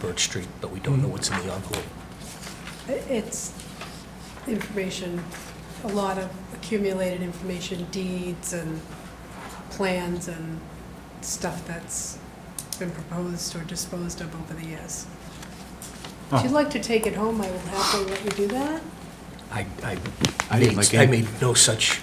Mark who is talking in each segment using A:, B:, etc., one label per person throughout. A: Birch Street, but we
B: Mm.
A: don't know what's in the envelope.
C: It's information, a lot of accumulated information, deeds and plans and stuff that's been proposed or disposed of over the years. If
A: Oh.
C: you'd like to take it home, I will happily let you do that.
A: I, I
D: I didn't like
A: made, I
D: any-
A: made no such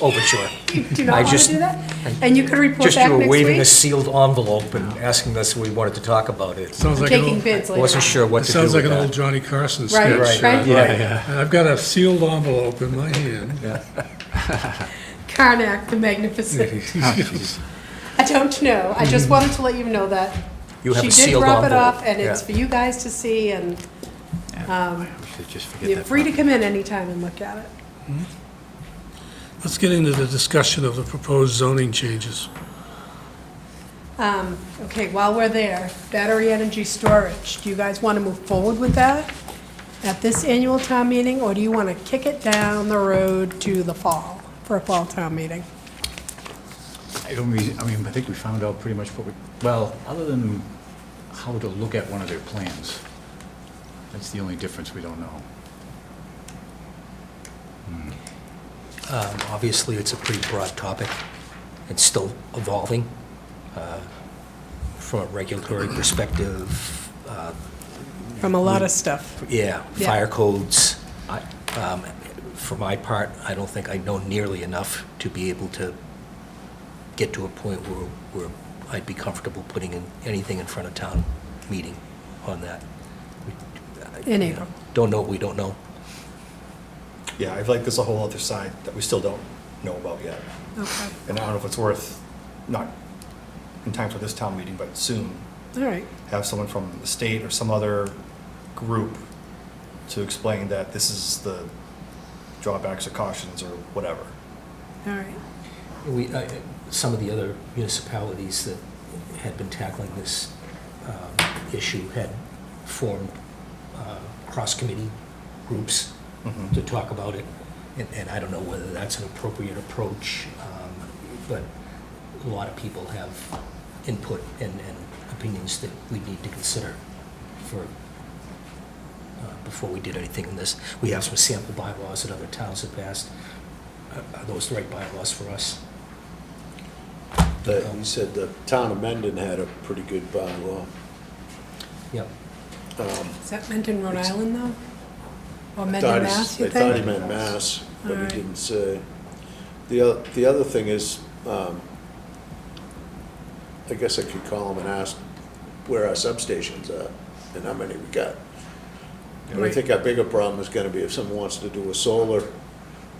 A: overture.
C: You Do
A: Oh, I
C: not want
A: just-
C: to do that? And you could report
A: Just
C: back
A: you were
C: next
A: waving a
C: week?
A: sealed envelope and asking us if we wanted to talk about it.
B: Sounds like an
C: Taking
B: old-
C: bids
A: I
C: later.
A: Wasn't sure
B: It
A: what to do
B: sounds like
A: with
B: an old
A: that.
B: Johnny Carson
C: Right,
B: sketch.
C: right.
A: Yeah,
B: And I've got a sealed envelope in my hand.
C: Karnak the Magnificent.
D: Ah,
C: I don't know. I just wanted to let you know that.
A: Mm-hmm. You have a
C: She did
A: sealed
C: wrap it
A: envelope.
C: up, and it's
A: Yeah.
C: for you guys to see, and
D: Um,
C: you're free to come in anytime and look at it.
B: Let's get into the discussion of the proposed zoning changes.
C: Um, Okay, while we're there, battery energy storage, do you guys want to move forward with that at this annual town meeting, or do you want to kick it down the road to the fall, for a fall town meeting?
D: I don't mean, I mean, I think we found out pretty much what we, well, other than how to look at one of their plans. That's the only difference we don't know.
A: Um, Obviously, it's a pretty broad topic and still evolving. uh, From a regulatory perspective, uh,
C: From a lot of stuff.
A: yeah,
C: Yeah.
A: fire codes. I, um, For my part, I don't think I know nearly enough to be able to get to a point where, where I'd be comfortable putting in anything in front of town meeting on that.
C: In April.
A: Don't know, what we don't know.
E: Yeah, I feel like there's a whole other side that we still don't know about yet.
C: Okay,
E: And I don't know if it's worth, not in time for this town meeting, but soon,
C: all right.
E: have someone from the state or some other group to explain that this is the drawbacks or cautions or whatever.
C: All right.
A: We, I- some of the other municipalities that had been tackling this um, issue had formed uh, cross-committee groups
E: Mhm.
A: to talk about it, and- and I don't know whether that's an appropriate approach, um, but a lot of people have input and and opinions that we need to consider for, uh, before we did anything in this. We have some sample bylaws that other towns have passed. Are are those the right bylaws for us?
F: But you said the town of Mendon had a pretty good bylaw.
A: Yep.
C: Is that meant in Rhode Island, though? Or meant
F: Thought
C: in
F: he-
C: Mass, you
F: They thought he
C: think?
F: meant Mass, but he
C: Alright.
F: didn't say. The, oth- the other thing is, um, I guess I could call him and ask where our substations are and how many we got. And I
C: Right.
F: think our bigger problem is gonna be if someone wants to do a solar,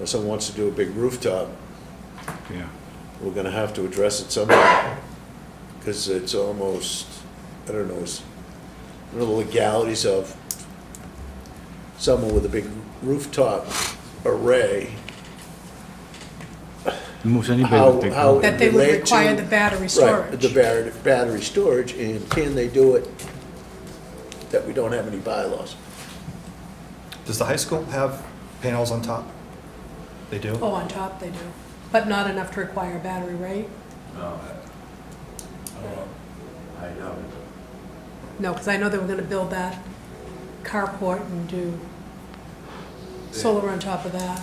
F: or someone wants to do a big rooftop,
D: Yeah.
F: we're gonna have to address it somehow, because it's almost, I don't know, it's, I don't know the legalities of someone with a big rooftop array.
D: Most anybody
F: How
D: would think. oh,
F: how it
C: That they would
F: relate to-
C: require the battery storage.
F: Right, the battery, battery storage, and can they do it that we don't have any bylaws?
E: Does the high school have panels on top? They do?
C: Oh, on top they do, but not enough to require a battery, right? No, because I know they were going to build that carport and do solar on top of that.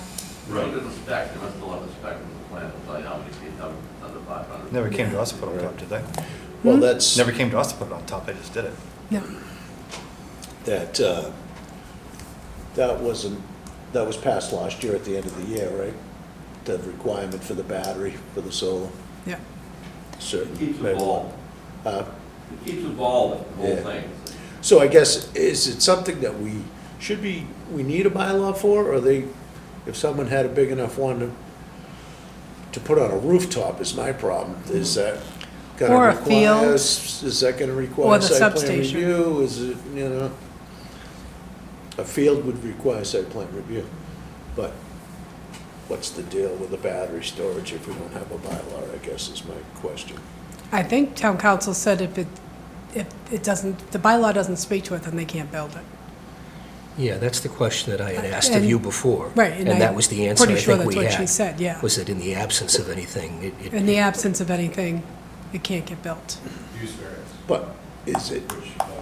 G: Right. Under the spec, there must still have a spec from the plan, to tell you how many feet, how, under five hundred.
E: Never came to us to put it on top, did they?
F: Well, that's.
E: Never came to us to put it on top, they just did it.
C: No,
F: that, uh, that wasn't, that was passed last year at the end of the year, right? The requirement for the battery, for the solar,
C: yeah.
F: certain.
G: It keeps
F: megawatt.
G: evolving. It keeps evolving, the whole
F: Yeah.
G: thing.
F: So I guess, is it something that we should be, we need a bylaw for, or they, if someone had a big enough one to, to put on a rooftop is my problem, is that
C: Mm-hmm. Or a
F: gonna require,
C: field.
F: is that gonna
C: Or
F: require
C: the
F: site plan
C: substation.
F: review, is it, you know? A field would require site plan review, but what's the deal with the battery storage if we don't have a bylaw, I guess is my question.
C: I think town council said if it, if it doesn't, the bylaw doesn't speak to it, then they can't build it.
A: Yeah, that's the question that I had asked of
C: And-
A: you before.
C: right, and
A: And that
C: I'm
A: was the answer I
C: pretty sure
A: think we
C: that's
A: had.
C: what she said, yeah.
A: Was that in the absence of anything, it-
C: In
A: it,
C: the absence of anything, it can't get built.
F: But is it